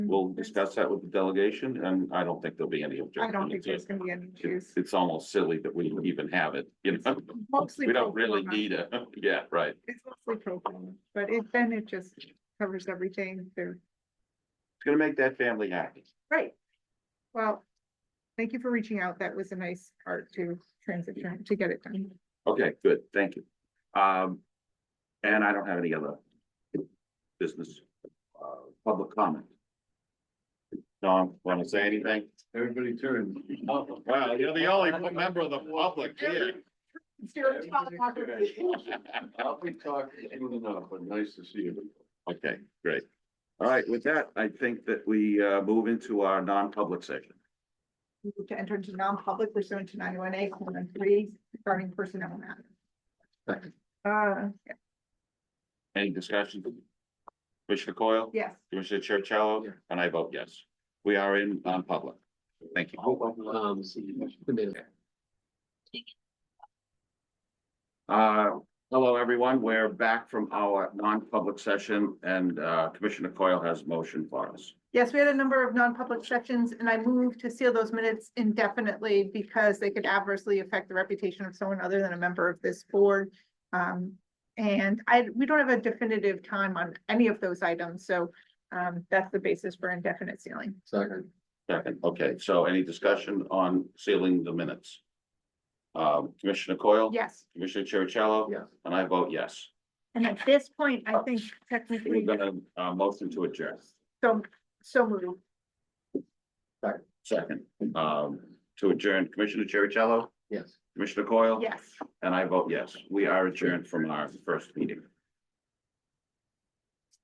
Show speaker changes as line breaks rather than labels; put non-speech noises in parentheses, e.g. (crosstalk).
we'll discuss that with the delegation, and I don't think there'll be any objection.
I don't think
It's a-
there's gonna be any
It's,
issues.
it's almost silly that we even have it, you know,
Mostly
we
pro
don't really
forma.
need a, (laughs) yeah, right.
It's mostly pro forma, but it, then it just covers everything there.
It's gonna make that family happy.
Right. Well, thank you for reaching out. That was a nice part to transition, to get it done.
Okay, good, thank you. Um, and I don't have any other business, uh, public comment. Don, wanna say anything?
Everybody turned.
Wow, you're the only member of the public here.
I'll be talking soon enough, but nice to see you.
Okay, great. All right, with that, I think that we, uh, move into our non-public session.
We need To enter into non-public pursuant to ninety-one A, colon, three, regarding personnel matters.
Second.
Uh,
Any discussion? Commissioner Coyle?
yes.
Commissioner Chercello?
Yeah.
And I vote yes. We are in non-public. Thank you.
Um, the minute.
Uh, hello, everyone. We're back from our non-public session and, uh, Commissioner Coyle has a motion for us.
Yes, we had a number of non-public sessions and I moved to seal those minutes indefinitely because they could adversely affect the reputation of someone other than a member of this board. Um, and I, we don't have a definitive time on any of those items, so um, that's the basis for indefinite sealing.
Second.
Second, okay, so any discussion on sealing the minutes? Um, Commissioner Coyle?
Yes,
Commissioner Chercello?
Yes.
And I vote yes.
and at this point, I think technically,
We're gonna, uh, motion to adjourn.
so, so moved.
Second, um, to adjourn, Commissioner Chercello?
Yes.
Commissioner Coyle?
Yes.
And I vote yes. We are adjourned from our first meeting.